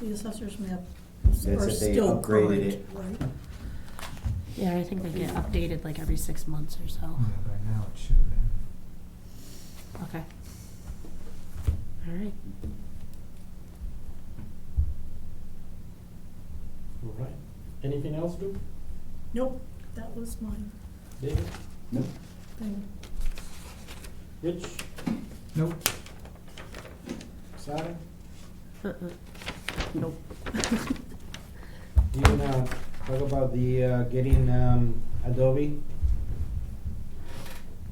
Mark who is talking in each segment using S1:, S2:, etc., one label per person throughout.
S1: The assessor's map
S2: That's
S1: are
S2: it, they
S1: still
S2: upgraded
S1: current,
S2: it.
S1: right?
S3: Yeah, I think they get updated like every six months or so.
S4: Yeah,
S5: Mm-hmm.
S4: by now it should have been.
S3: Okay. All right.
S5: All right. Anything else, Duke?
S1: Nope, that was my
S5: David?
S2: Nope.
S1: thing.
S5: Rich?
S4: Nope.
S5: Sarah?
S3: Uh-uh. Nope.
S5: You wanna talk about the, uh, getting, um, Adobe?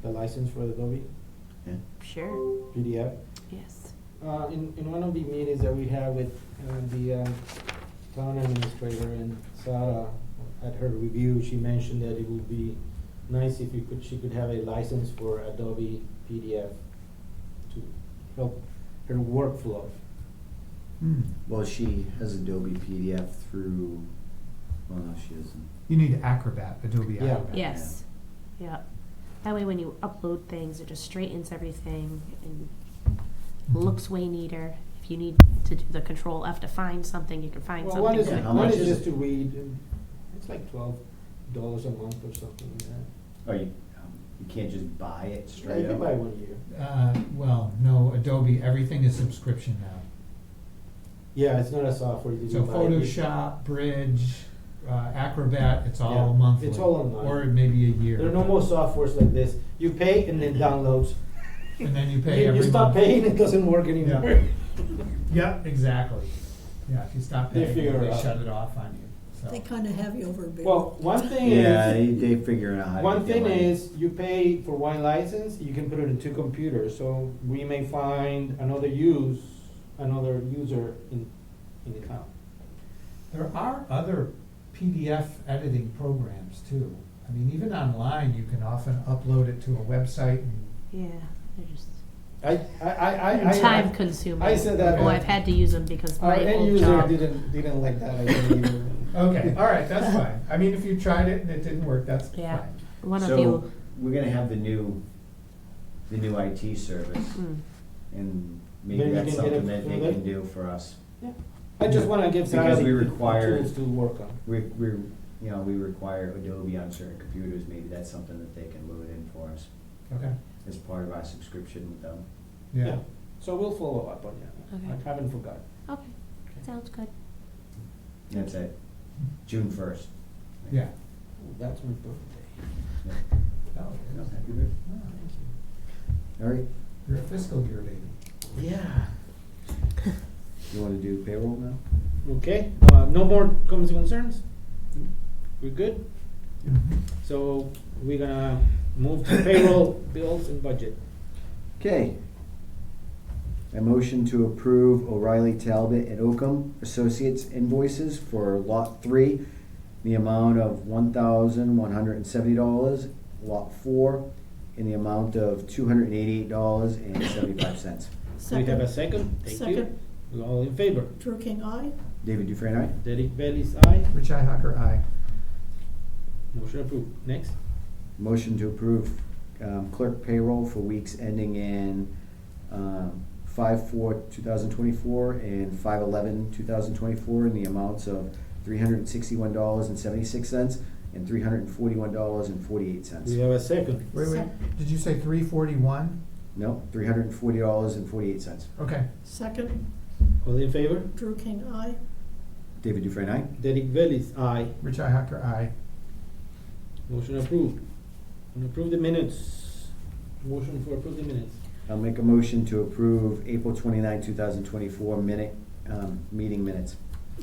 S5: The license for Adobe
S2: Yeah.
S3: Sure.
S5: PDF?
S3: Yes.
S5: Uh, in, in one of the meetings that we had with, uh, the, um, town administrator and Sarah, at her review, she mentioned that it would be nice if you could, she could have a license for Adobe PDF to help her workflow.
S4: Hmm.
S2: Well, she has Adobe PDF through, well, no, she doesn't.
S4: You need Acrobat, Adobe
S5: Yeah.
S4: Acrobat.
S3: Yes. Yeah. That way, when you upload things, it just straightens everything and
S5: Mm-hmm.
S4: Mhm.
S3: looks way neater. If you need to do the control F to find something, you can find
S5: Well,
S3: something.
S5: one is,
S2: Yeah, how
S5: one
S2: much
S5: is
S2: is
S5: just
S2: it?
S5: to read, and it's like twelve dollars a month or something like that.
S2: Oh, you, um, you can't just buy it
S5: You
S2: straight
S5: can
S2: up?
S5: buy one year.
S4: Uh, well, no, Adobe, everything is subscription now.
S5: Yeah, it's not a software, you
S4: So
S5: can buy it.
S4: Photoshop, Bridge, uh, Acrobat, it's all
S5: Yeah,
S4: monthly.
S5: it's all online.
S4: Or maybe a year.
S5: There are no more softwares like this, you pay and then downloads.
S4: And then you Mm-hmm. pay
S5: You,
S4: every
S5: you
S4: month.
S5: stop paying, it doesn't work
S4: Yeah.
S5: anymore.
S4: Yeah, exactly. Yeah, if you stop
S5: They
S4: paying,
S5: figure it
S4: they
S5: out.
S4: shut it off on you, so.
S1: They kind of have you over a barrel.
S5: Well, one thing
S2: Yeah,
S5: is,
S2: they, they figure out how to.
S5: one
S2: get the
S5: thing
S2: money.
S5: is, you pay for one license, you can put it in two computers, so we may find another use, another user in, in the town.
S4: There are other PDF editing programs too. I mean, even online, you can often upload it to a website and
S3: Yeah. They're just
S5: I, I, I, I. I-
S3: time consuming.
S5: I said that,
S3: Oh,
S4: uh,
S3: I've had to use them because
S5: Our
S3: my
S5: end
S3: old
S5: user
S3: job.
S5: didn't, didn't like that idea either.
S4: Okay, all right, that's fine. I mean, if you tried it and it didn't work, that's
S3: Yeah.
S4: fine.
S3: One of
S2: So,
S3: you.
S2: we're gonna have the new, the new IT service,
S3: Mm.
S2: and maybe
S5: Maybe we
S2: that's
S5: can get it
S2: something that they
S5: through
S2: can
S5: there?
S2: do for us.
S5: I just wanna give Sarah
S2: Because
S5: the
S2: we
S5: the
S2: require-
S5: tools to work on.
S2: We, we, you know, we require Adobe on certain computers, maybe that's something that they can load in for us
S4: Okay,
S2: as part of our subscription with them.
S4: yeah.
S5: So we'll follow up on that.
S3: Okay.
S5: I haven't forgotten.
S3: Okay. Sounds good.
S2: That's it, June first.
S4: Yeah.
S5: That's my birthday.
S4: Oh, it is. Oh,
S2: All right,
S4: You're a fiscal year lady.
S5: Yeah.
S2: you wanna do payroll now?
S5: Okay, uh, no more comments and concerns? We're good?
S4: Mm-hmm.
S5: So we're gonna move to payroll, bills and budget.
S2: Okay. A motion to approve O'Reilly Talbot and Oakham Associates invoices for Lot Three, the amount of one thousand one hundred and seventy dollars, Lot Four, in the amount of two hundred and eighty-eight dollars and seventy-five cents.
S5: We have
S1: Second,
S5: a second, thank you.
S1: Second.
S5: We're all in favor.
S1: Drew King, aye.
S2: David Dufresne, aye?
S5: Derek Bailey's aye,
S4: Rich Ihacker, aye.
S5: motion approved. Next,
S2: Motion to approve um, clerk payroll for weeks ending in um, five four two thousand twenty-four and five eleven two thousand twenty-four in the amounts of three hundred and sixty-one dollars and seventy-six cents and three hundred and forty-one dollars and forty-eight cents.
S5: we have a second.
S4: Wait, wait, did you say three forty-one?
S2: No, three hundred and forty dollars and forty-eight cents.
S4: Okay,
S1: Second,
S5: All in favor?
S1: Drew King, aye.
S2: David Dufresne, aye?
S5: Derek Bailey's aye,
S4: Rich Ihacker, aye.
S5: motion approved. And approve the minutes. Motion for approve the minutes.
S2: I'll make a motion to approve April twenty-nine, two thousand twenty-four minute, um, meeting minutes.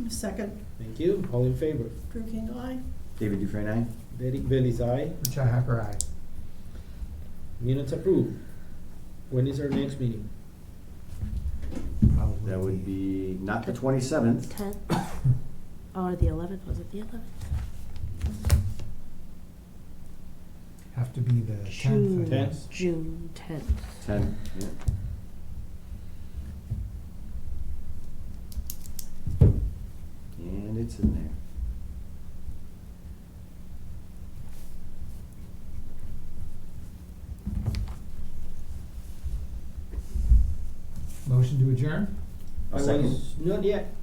S1: Second,
S5: Thank you, all in favor?
S1: Drew King, aye.
S2: David Dufresne, aye?
S5: Derek Bailey's aye,
S4: Rich Ihacker, aye.
S5: minutes approved. When is our next meeting?
S4: Probably.
S2: That would be not the twenty-seventh.
S3: Ten. Or the eleventh, was it the eleventh?
S4: Have to be the tenth, I
S3: June.
S4: guess.
S3: June tenth.
S2: Ten, yeah. And it's in there.
S4: Motion to adjourn?
S2: I'll
S5: I
S2: second.
S5: was- Not yet.